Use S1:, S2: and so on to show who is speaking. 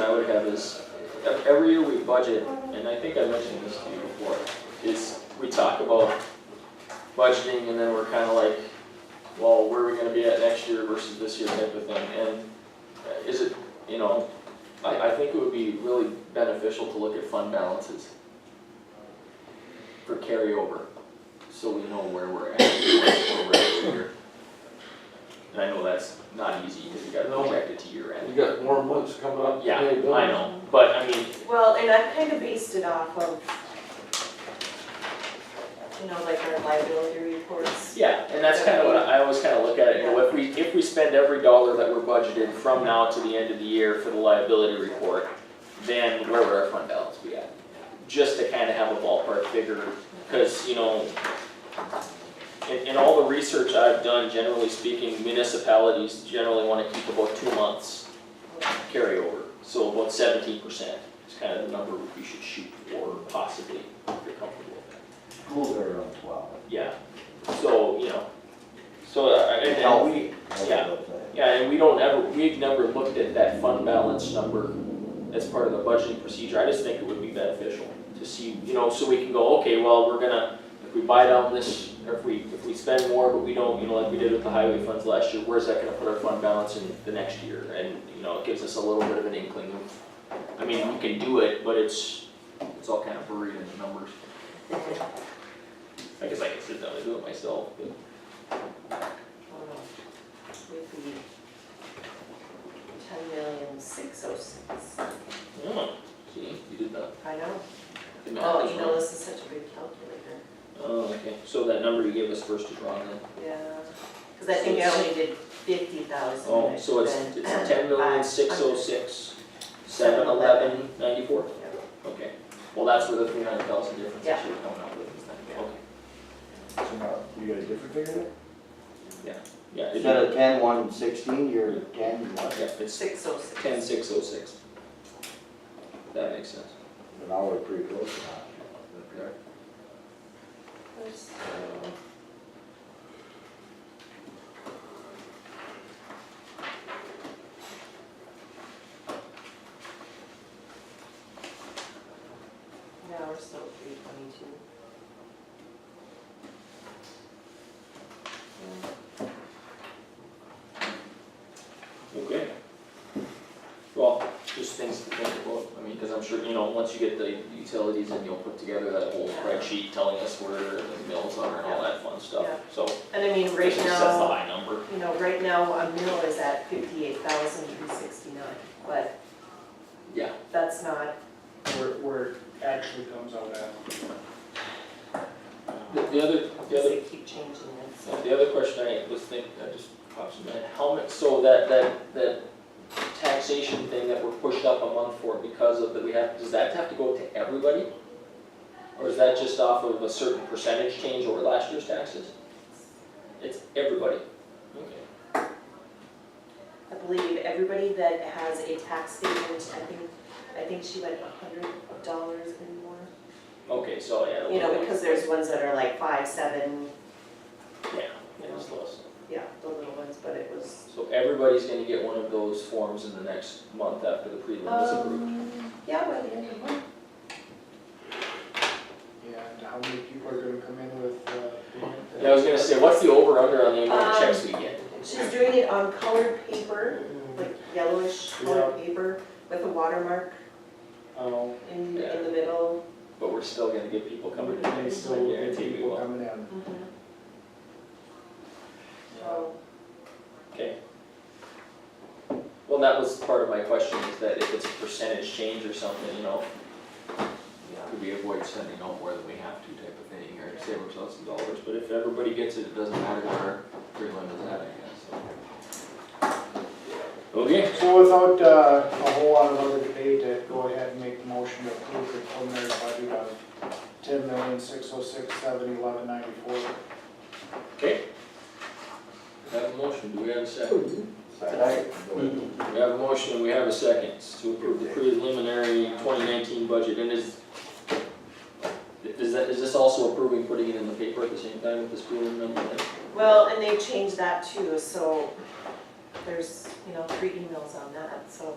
S1: is, ev- every year we budget, and I think I mentioned this to you before, is we talk about budgeting and then we're kinda like, well, where are we gonna be at next year versus this year type of thing, and uh, is it, you know, I, I think it would be really beneficial to look at fund balances for carryover, so we know where we're at, where we're at for year. And I know that's not easy, because you gotta
S2: No.
S1: project it to year end.
S2: You got more months coming up. to
S1: Yeah,
S2: pay bills.
S1: I know, but I mean,
S3: Well, and I've kind of based it off of, you know, like our liability reports.
S1: yeah, and that's kind of what I I always kind of look at it, you know, if we, if we spend every dollar that we're budgeted from now to the end of the year for the liability report, then where would our fund balance be at? Just to kind of have a ballpark figure, because, you know, in, in all the research I've done, generally speaking, municipalities generally want to keep about two months carryover. So about seventeen percent is kind of the number we should shoot for possibly, if you're comfortable with that.
S4: Schools are around twelve.
S1: Yeah, so, you know, so, uh, and, and we,
S4: Healthy, that's
S1: yeah.
S4: what I'm saying.
S1: yeah, and we don't ever, we've never looked at that fund balance number as part of the budgeting procedure, I just think it would be beneficial to see, you know, so we can go, okay, well, we're gonna, if we buy down this, or if we, if we spend more, but we don't, you know, like we did with the highway funds last year, where's that gonna put our fund balance in the next year? And, you know, it gives us a little bit of an inkling of, I mean, we can do it, but it's, it's all kind of buried in the numbers. I guess I could sit down and do it myself, but.
S3: Um, Would be ten million six oh six.
S1: Oh, see, you did that.
S3: I know.
S1: The math
S3: Oh,
S1: is
S3: you know,
S1: wrong.
S3: this is such a big calculator.
S1: Oh, okay, so that number you gave us first is wrong then?
S3: Yeah. Cause I think I only did fifty thousand.
S1: Oh, so it's, it's ten million, six oh six, seven eleven, ninety-four? Okay, well, that's where the three hundred thousand difference is
S3: Yeah.
S1: actually coming up with, is that,
S3: Yeah.
S1: okay,
S4: So now, You got a different figure there?
S1: yeah. it-
S4: Instead of ten, one, sixteen, you're ten, what?
S1: Yeah, it's
S3: Six oh six.
S1: ten, six oh six. That makes sense.
S4: But now we're pretty close to that. Uh, Is that correct?
S3: Yeah, we're still at three twenty-two.
S1: Okay. Well, just things to think about, I mean, cause I'm sure, you know, once you get the utilities and you'll put together that whole spreadsheet telling us where the mills are and all that fun stuff,
S3: Yeah.
S1: so.
S3: And I mean, right
S1: That's the
S3: now,
S1: high number.
S3: you know, right now, a mill is at fifty-eight thousand three sixty-nine, but
S1: Yeah.
S3: that's not,
S5: where, where it actually comes out at.
S1: The, the other, the
S3: because
S1: other,
S3: they keep changing it, so.
S1: uh, the other question I was thinking, that just pops in my head, how much, so that, that, that taxation thing that we're pushed up a month for because of that we have, does that have to go to everybody? Or is that just off of a certain percentage change over last year's taxes? It's everybody. Okay.
S3: I believe everybody that has a tax statement, I think, I think she went a hundred dollars and more.
S1: Okay, so yeah.
S3: You know, because there's ones that are like five, seven,
S1: Yeah, it was less.
S3: yeah, the little ones, but it was.
S1: So everybody's gonna get one of those forms in the next month after the prelim is approved.
S3: Um, yeah, by the end of the month.
S5: And how many people are gonna come in with, uh? payment that-
S1: Yeah, I was gonna say, what's the over under on the amount of checks we get?
S3: She's doing it on colored paper, like yellowish colored paper with a watermark
S5: Oh,
S3: in,
S1: Yeah.
S3: in the middle.
S1: But we're still gonna get people coming in,
S5: they
S1: next
S5: still
S1: time,
S5: get
S1: guarantee we
S5: people
S1: will.
S5: coming in.
S3: So,
S1: Okay. Well, that was part of my question, is that if it's a percentage change or something, you know, could we avoid sending out more than we have to type of thing, or save ourselves some dollars, but if everybody gets it, it doesn't matter where Greenland is at, I guess, so. Okay,
S5: So without, uh, a whole lot of other debate, I'd go ahead and make the motion to approve the preliminary budget of ten million, six oh six, seven, eleven, ninety-four.
S1: okay. We have a motion, do we have a second?
S4: Second.
S1: We have a motion, we have a second, to approve the preliminary twenty nineteen budget, and is, is that, is this also approving putting it in the paper at the same time with this preliminary number?
S3: well, and they changed that too, so there's, you know, three emails on that, so